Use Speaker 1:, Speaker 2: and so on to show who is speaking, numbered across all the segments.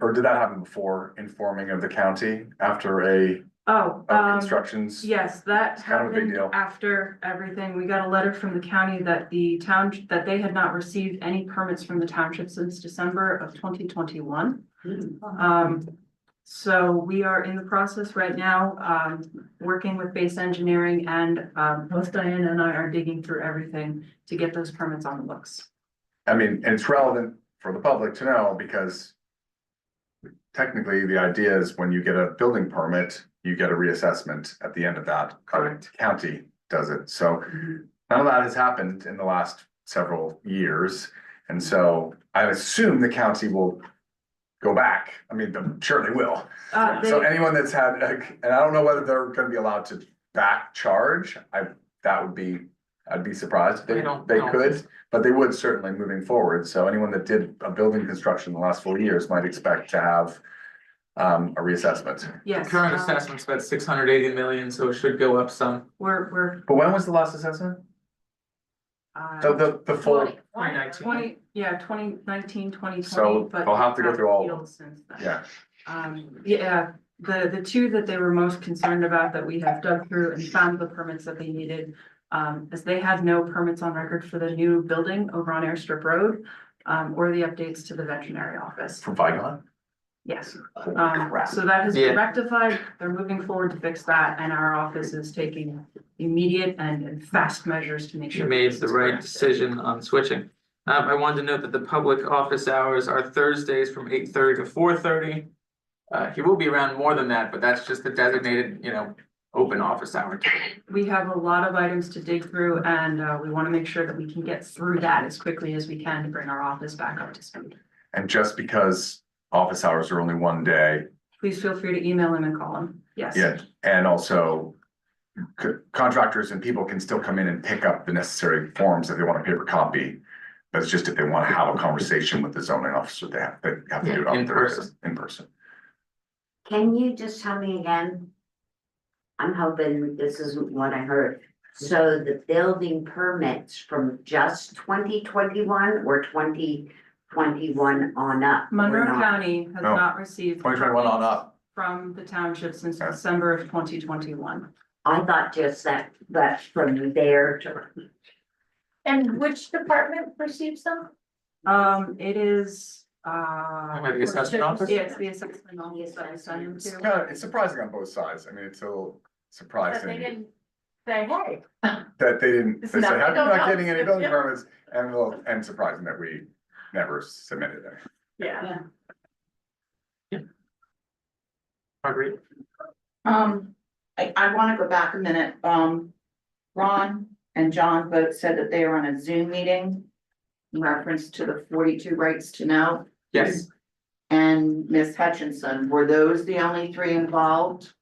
Speaker 1: or did that happen before informing of the county after a,
Speaker 2: Oh,
Speaker 1: of
Speaker 2: um,
Speaker 1: constructions?
Speaker 2: yes, that
Speaker 1: It's kind of a big
Speaker 2: happened
Speaker 1: deal.
Speaker 2: after everything. We got a letter from the county that the town, that they had not received any permits from the township since December of twenty twenty-one. Um, so we are in the process right now, um, working with base engineering and, um, both Diane and I are digging through everything to get those permits on the books.
Speaker 1: I mean, and it's relevant for the public to know because technically, the idea is when you get a building permit, you get a reassessment at the end of that.
Speaker 2: Correct.
Speaker 1: County does it, so none of that has happened in the last several years. And so I assume the county will go back. I mean, I'm sure they will.
Speaker 2: Uh,
Speaker 1: So
Speaker 2: they-
Speaker 1: anyone that's had, uh, and I don't know whether they're gonna be allowed to back charge, I, that would be, I'd be surprised if they,
Speaker 3: I don't
Speaker 1: they
Speaker 3: know.
Speaker 1: could. But they would certainly moving forward, so anyone that did a building construction in the last four years might expect to have um, a reassessment.
Speaker 2: yes.
Speaker 3: Current
Speaker 2: um,
Speaker 3: assessment's about six hundred eighty million, so it should go up some.
Speaker 2: We're, we're,
Speaker 1: But when was the last assessment? The,
Speaker 2: uh,
Speaker 1: the, the full,
Speaker 2: twenty, yeah, twenty nineteen, twenty twenty,
Speaker 1: So,
Speaker 2: but. um,
Speaker 1: I'll have to go through all of them.
Speaker 2: appealed Since then.
Speaker 1: yeah,
Speaker 2: Um, yeah, the, the two that they were most concerned about that we have dug through and found the permits that they needed. Um, is they had no permits on record for the new building over on Airstrip Road, um, or the updates to the veterinary office.
Speaker 1: from Vigon.
Speaker 2: Yes,
Speaker 1: Holy
Speaker 2: um,
Speaker 1: crap.
Speaker 2: so that has
Speaker 3: Yeah.
Speaker 2: been rectified. They're moving forward to fix that and our office is taking immediate and and fast measures to make
Speaker 3: You
Speaker 2: sure.
Speaker 3: made
Speaker 2: this
Speaker 3: the
Speaker 2: is
Speaker 3: right
Speaker 2: corrected.
Speaker 3: decision on switching. Um, I wanted to note that the public office hours are Thursdays from eight thirty to four thirty. Uh, he will be around more than that, but that's just the designated, you know, open office hour.
Speaker 2: We have a lot of items to dig through and, uh, we want to make sure that we can get through that as quickly as we can to bring our office back up to speed.
Speaker 1: And just because office hours are only one day,
Speaker 2: please feel free to email him and call him. Yes.
Speaker 1: Yeah, and also c- contractors and people can still come in and pick up the necessary forms if they want a paper copy. That's just if they want to have a conversation with the zoning officer, they have, they have to do it
Speaker 3: Yeah,
Speaker 1: on
Speaker 3: in
Speaker 1: Thursday, in person.
Speaker 4: Can you just tell me again? I'm hoping this isn't what I heard. So the building permits from just twenty twenty-one or twenty twenty-one on up? were
Speaker 2: Monroe
Speaker 4: not-
Speaker 2: County has
Speaker 1: No.
Speaker 2: not received.
Speaker 1: Twenty twenty one on up,
Speaker 2: From the township since
Speaker 1: Yeah.
Speaker 2: December of twenty twenty-one.
Speaker 4: I thought just that, but from there to,
Speaker 5: And which department receives them?
Speaker 2: Um, it is,
Speaker 3: I'm
Speaker 2: uh.
Speaker 3: at the assessment office.
Speaker 2: Yeah, it's the assessment office that I sent him
Speaker 1: it's
Speaker 2: to.
Speaker 1: kind of, it's surprising on both sides, I mean, it's a little
Speaker 5: That they
Speaker 1: surprising
Speaker 5: didn't say, hey,
Speaker 1: that they didn't, they
Speaker 5: It's
Speaker 1: said,
Speaker 5: not-
Speaker 1: how come
Speaker 5: no,
Speaker 1: you're not
Speaker 5: no,
Speaker 1: getting any
Speaker 5: it's-
Speaker 1: building
Speaker 5: yeah.
Speaker 1: permits? And well, and surprising that we never submitted it.
Speaker 5: yeah.
Speaker 3: Marguerite,
Speaker 6: Um, I, I wanna go back a minute, um, Ron and John both said that they were on a Zoom meeting. In reference to the forty-two rights to know,
Speaker 3: yes,
Speaker 6: and Miss Hutchinson, were those the only three involved?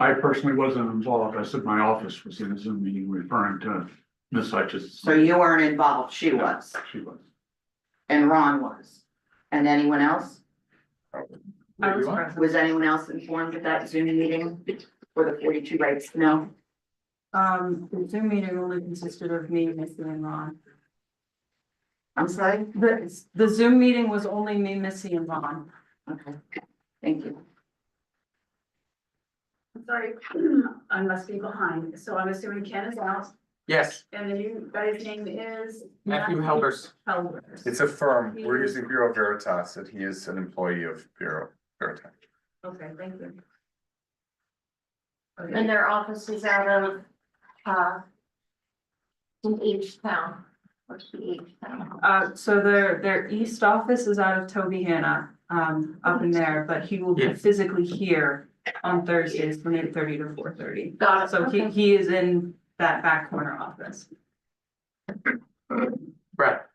Speaker 7: I personally wasn't involved. I said my office was in a Zoom meeting referring to Ms. Hutchins.
Speaker 6: So you weren't involved, she was,
Speaker 7: She was.
Speaker 6: and Ron was, and anyone else?
Speaker 2: I was
Speaker 3: You are?
Speaker 2: present.
Speaker 6: Was anyone else informed of that Zoom meeting for the forty-two rights to know?
Speaker 2: Um, the Zoom meeting only consisted of me, Missy and Ron.
Speaker 6: I'm sorry?
Speaker 2: The, the Zoom meeting was only me, Missy and Ron.
Speaker 6: Okay, thank you.
Speaker 8: I'm sorry, I must be behind, so I'm assuming Ken is out,
Speaker 3: yes,
Speaker 8: and the new guy's name is.
Speaker 2: Um,
Speaker 3: Matthew Helbers.
Speaker 2: Helvers.
Speaker 1: It's a firm, we're using Bureau Veritas, and he is an employee of Bureau Veritas.
Speaker 8: Okay, thank you.
Speaker 2: Okay.
Speaker 5: And their office is out of, uh. In each town, what's the each town?
Speaker 2: Uh, so their, their east office is out of Toby Hannah, um, up in there, but he will be
Speaker 3: Yeah.
Speaker 2: physically here on Thursdays from eight thirty to four thirty.
Speaker 5: Got it,
Speaker 2: So he,
Speaker 5: okay.
Speaker 2: he is in that back corner office.
Speaker 3: Brett,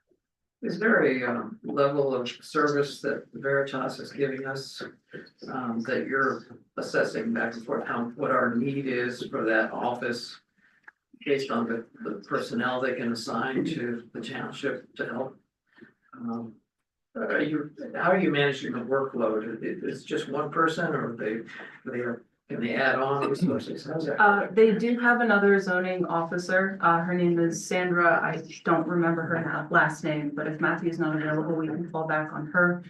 Speaker 9: Is there a um level of service that Veritas is giving us? Um that you're assessing back and forth how what our need is for that office? Based on the the personnel they can assign to the township to help? Um are you, how are you managing the workload? Is it- it's just one person or they they are, can they add on resources? How's that?
Speaker 2: Uh, they do have another zoning officer, uh, her name is Sandra, I don't remember her na- last name, but if Matthew's not available, we can fall back on her.